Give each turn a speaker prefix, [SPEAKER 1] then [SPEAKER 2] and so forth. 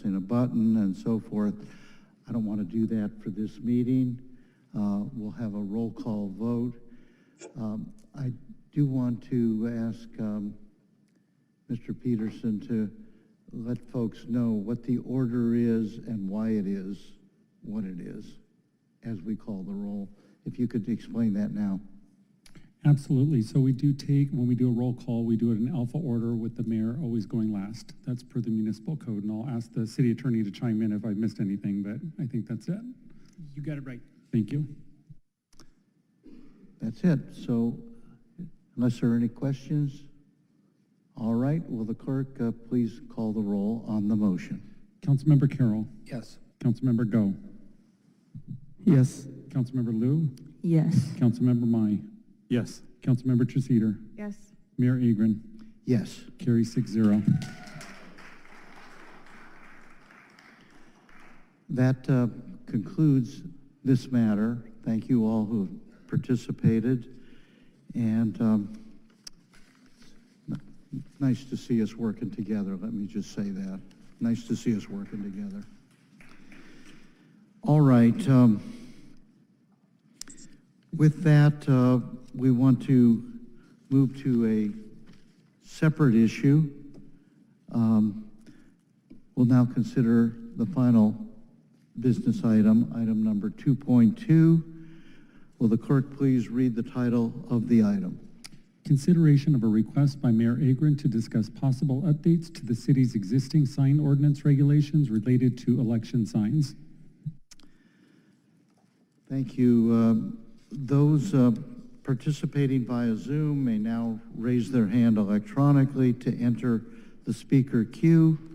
[SPEAKER 1] and a button and so forth. I don't want to do that for this meeting. Uh, We'll have a roll call vote. Um, I do want to ask um, Mr. Peterson to let folks know what the order is and why it is what it is, as we call the roll. If you could explain that now.
[SPEAKER 2] Absolutely. So we do take, when we do a roll call, we do it in alpha order with the mayor always going last. That's per the municipal code, and I'll ask the city attorney to chime in if I've missed anything, but I think that's it.
[SPEAKER 3] You got it right.
[SPEAKER 2] Thank you.
[SPEAKER 1] That's it. So unless there are any questions, all right, will the clerk uh, please call the roll on the motion?
[SPEAKER 2] Councilmember Carroll.
[SPEAKER 3] Yes.
[SPEAKER 2] Councilmember Go.
[SPEAKER 3] Yes.
[SPEAKER 2] Councilmember Lou.
[SPEAKER 4] Yes.
[SPEAKER 2] Councilmember Mai. Yes. Councilmember Treceder.
[SPEAKER 4] Yes.
[SPEAKER 2] Mayor Agron.
[SPEAKER 1] Yes.
[SPEAKER 2] Carrie six zero.
[SPEAKER 1] That uh, concludes this matter. Thank you all who have participated, and um, n- nice to see us working together, let me just say that. Nice to see us working together. All right. um, With that, uh, we want to move to a separate issue. Um, We'll now consider the final business item, item number 2.2. Will the clerk please read the title of the item?
[SPEAKER 2] Consideration of a request by Mayor Agron to discuss possible updates to the city's existing sign ordinance regulations related to election signs.
[SPEAKER 1] Thank you. Um, Those uh, participating via Zoom may now raise their hand electronically to enter the speaker queue.